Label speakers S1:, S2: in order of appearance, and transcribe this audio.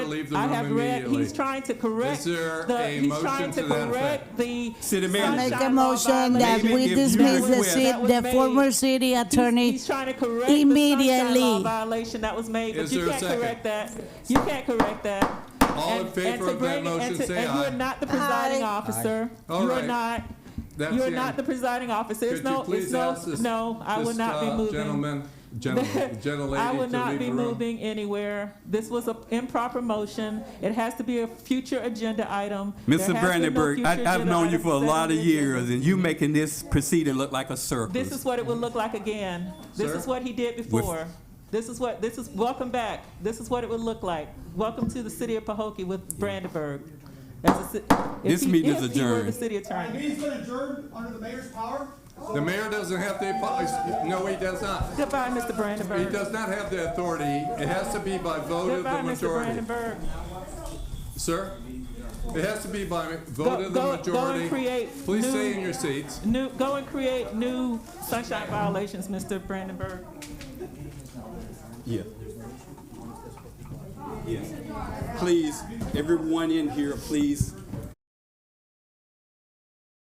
S1: leave the
S2: I
S1: room
S2: have read,
S1: immediately.
S2: he's trying to correct
S1: Is there
S2: the,
S1: a
S2: he's
S1: motion
S2: trying
S1: to
S2: to
S1: that effect?
S2: correct the.
S3: City
S2: sunshine
S3: manager.
S2: law
S4: Make a motion that
S2: violation.
S3: Maybe
S4: we
S3: if you
S4: dismiss the,
S3: request-
S4: city,
S2: That was
S4: the
S2: made.
S4: former city attorney.
S2: He's trying to correct the sunshine law
S4: Immediately.
S2: violation that was made, but
S1: Is
S2: you
S1: there a
S2: can't
S1: second?
S2: correct that. You can't correct that.
S1: All in
S2: And- and
S1: favor
S2: to
S1: of that
S2: bring- and
S1: motion,
S2: to-
S1: say
S2: And you are
S1: aye.
S2: not the presiding officer.
S1: All
S2: You are
S1: right.
S2: not,
S1: That's
S2: you are
S1: the
S2: not
S1: end.
S2: the presiding officer. It's
S1: Could you
S2: no, it's
S1: please
S2: no,
S1: ask this?
S2: no, I will
S1: this,
S2: not be
S1: uh,
S2: moving.
S1: Gentleman, gentleman,
S2: I
S1: gentlelady
S2: will
S1: to
S2: not
S1: leave
S2: be
S1: the room.
S2: moving anywhere. This was an improper motion. It has to be a future agenda item.
S3: Mr.
S2: There has been no
S3: Brandenburg,
S2: future
S3: I, I've
S2: agenda
S3: known you
S2: item
S3: for a
S2: set
S3: lot
S2: on
S3: of
S2: the agenda.
S3: years, and you making this proceeding look like a
S2: This
S3: circus.
S2: is what it would look like again. This
S1: Sir?
S2: is what he did before. This is what, this is, welcome back. This is what it would look like. Welcome to the city of Pahokee with Brandenburg. As a ci- if
S3: This
S2: he-
S3: meeting is
S2: if he were the
S3: adjourned.
S2: city attorney.
S5: He's gonna adjourn under the mayor's power?
S1: The mayor doesn't have the, apo- no, he does not.
S2: Goodbye, Mr.
S1: He
S2: Brandenburg.
S1: does not have the authority. It has to be by vote of
S2: Goodbye,
S1: the
S2: Mr.
S1: majority.
S2: Brandenburg.
S1: Sir? It has to be by vote
S2: Go,
S1: of the
S2: go, go and
S1: majority.
S2: create
S1: Please stay in
S2: new,
S1: your seats.
S2: new, go and create new sunshine violations, Mr. Brandenburg.
S3: Yeah. Yes. Please, everyone in here, please